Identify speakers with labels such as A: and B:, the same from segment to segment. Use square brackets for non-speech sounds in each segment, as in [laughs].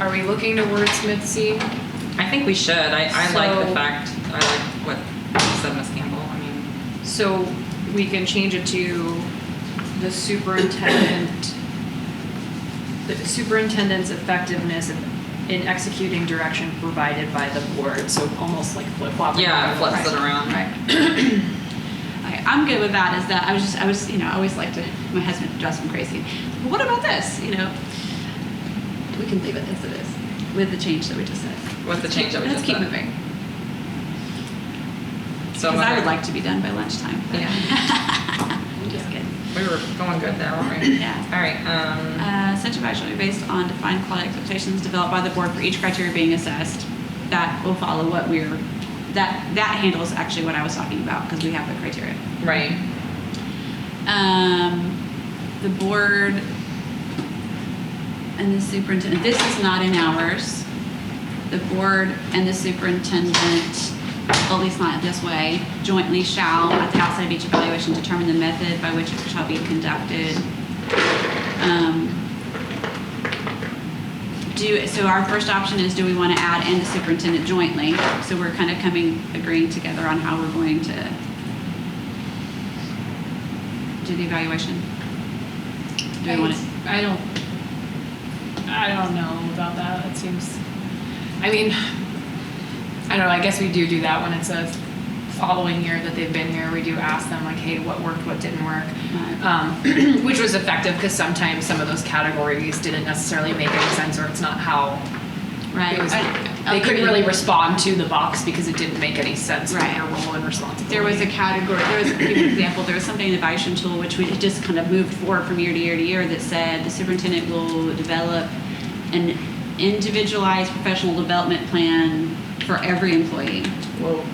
A: Are we looking to wordsmith C?
B: I think we should. I, I like
A: So-
B: the fact, I like what said Ms. Campbell. I mean,
A: So we can change it to the superintendent, the superintendent's effectiveness in executing direction provided by the board, so almost like flip flop.
B: yeah, it flips it around.
A: Right.
C: Okay, I'm good with that. Is that I was just I was you know I always like to my husband drives me crazy. But what about this? You know, we can leave it as it is with the change that we just said.
B: With the change that we
C: Let's
B: just
C: keep
B: said.
C: moving
B: So
C: because I would
B: whether-
C: like to be done by lunchtime. but- [laughs]
B: Yeah.
C: I'm just kidding.
B: We were going good there, weren't we?
C: Yeah.
B: All right. Um,
C: Uh, such advice shall be based on defined quality expectations developed by the board for each criteria being assessed. That will follow what we're that that handles actually what I was talking about because we have the criteria.
B: right.
C: um, the board and the superintendent, this is not in hours. The board and the superintendent, at least not this way, jointly shall, at the outset of each evaluation, determine the method by which it shall be conducted. Um, Do, so our first option is, do we want to add and the superintendent jointly? So we're kind of coming, agreeing together on how we're going to do the evaluation. Do we want it?
A: I don't, I don't know about that, it seems, I mean, I don't know, I guess we do do that when it's a following year that they've been here, we do ask them like, hey, what worked, what didn't work? Um, [clears throat] which was effective, because sometimes some of those categories didn't necessarily make any sense, or it's not how
C: Right.
A: it was,
C: I-
A: they couldn't really
C: agree.
A: respond to the box because it didn't make any sense for
C: Right.
A: their role and responsibility.
C: There was a category, there was, a good example, there was something in the evaluation tool which we just kind of moved forward from year to year to year that said the superintendent will develop an individualized professional development plan for every employee.
B: Well,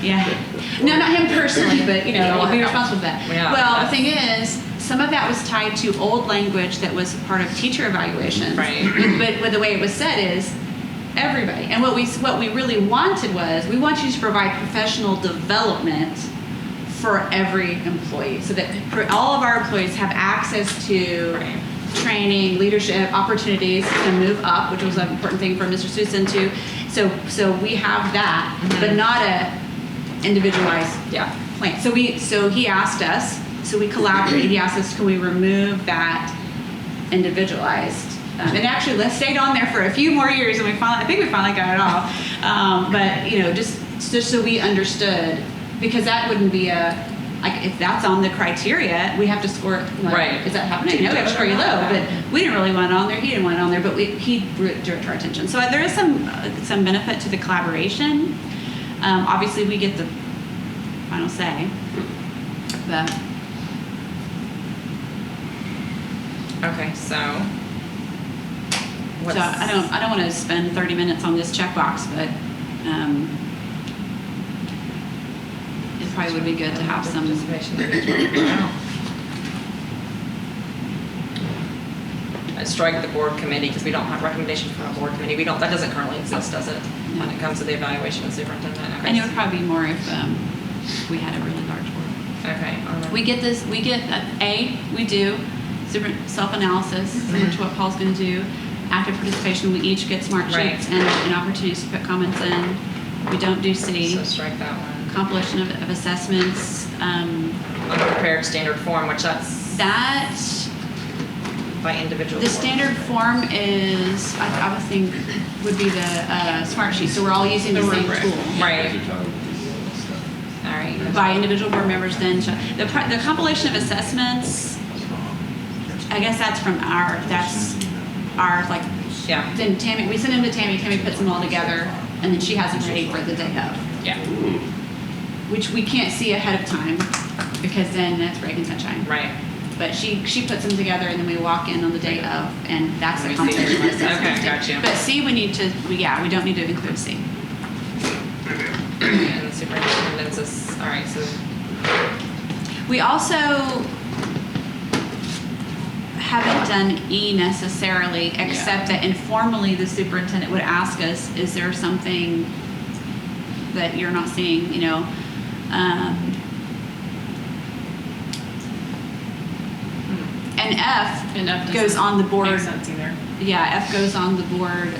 C: Yeah. No, not him personally, but you know, he'll be responsible for that.
B: Yeah.
C: Well, the thing is, some of that was tied to old language that was part of teacher evaluations.
B: Right.
C: [clears throat] But, but the way it was said is everybody. And what we what we really wanted was we want you to provide professional development for every employee, so that for all of our employees have access to
B: Right.
C: training, leadership opportunities to move up, which was an important thing for Mr. Susan to. So so we have that, but not a individualized
B: yeah.
C: plan. So we so he asked us, so we collaborated. He asked us, can we remove that individualized? Um, and actually, let's stayed on there for a few more years, and we finally I think we finally got it all. Um, but you know, just just so we understood, because that wouldn't be a like if that's on the criteria, we have to score. Like,
B: Right.
C: Is that happening? No, we have to score you low, but we didn't really want it on there. He didn't want it on there, but we, he drew it drew it to our attention. So uh, there is some uh, some benefit to the collaboration. Um, obviously, we get the final say, but
B: Okay. So. What's,
C: so I don't I don't want to spend 30 minutes on this checkbox, but um, it probably would be good to have some.
B: Participation
C: [coughs]
B: of each one. I strike the board committee because we don't have recommendation from a board committee. We don't. That doesn't currently exist, does it? When it comes to the evaluation of superintendent. Okay.
C: And it would probably be more if um, we had a really large board.
B: okay. um,
C: We get this, we get, uh, A, we do super- self-analysis, similar to what Paul's gonna do. Active participation, we each get smart
B: Right.
C: sheets and, and opportunities to put comments in. We don't do C.
B: So strike that one.
C: Compilation of, of assessments, um,
B: Unprepared standard form, which that's
C: that,
B: by individual.
C: the
B: board.
C: standard form is, I, I would think, would be the, uh, smart sheet, so we're all using the
A: The
C: same
A: rubric.
C: tool.
B: Right.
D: Right.
B: All right.
C: by individual board members then shall- the, pri- the compilation of assessments i guess that's from our that's our like
B: Yeah.
C: then tammy we send them to tammy tammy puts them all together and then she has them ready for the day of
B: Yeah.
C: which we can't see ahead of time because then that's breaking sunshine
B: Right. [clears throat]
C: but she she puts them together and then we walk in on the day of and that's the
B: We see.
C: compilation of
B: Okay,
C: assessments
B: gotcha.
C: but c we need to we, yeah we don't need to include c
B: And the superintendent's is all right. So
C: We also haven't done E necessarily, except that informally the superintendent would ask us, is there something that you're not seeing, you know? Um, And F
A: Enough
C: goes on the
A: Make
C: board,
A: sense either.
C: yeah, F goes on the board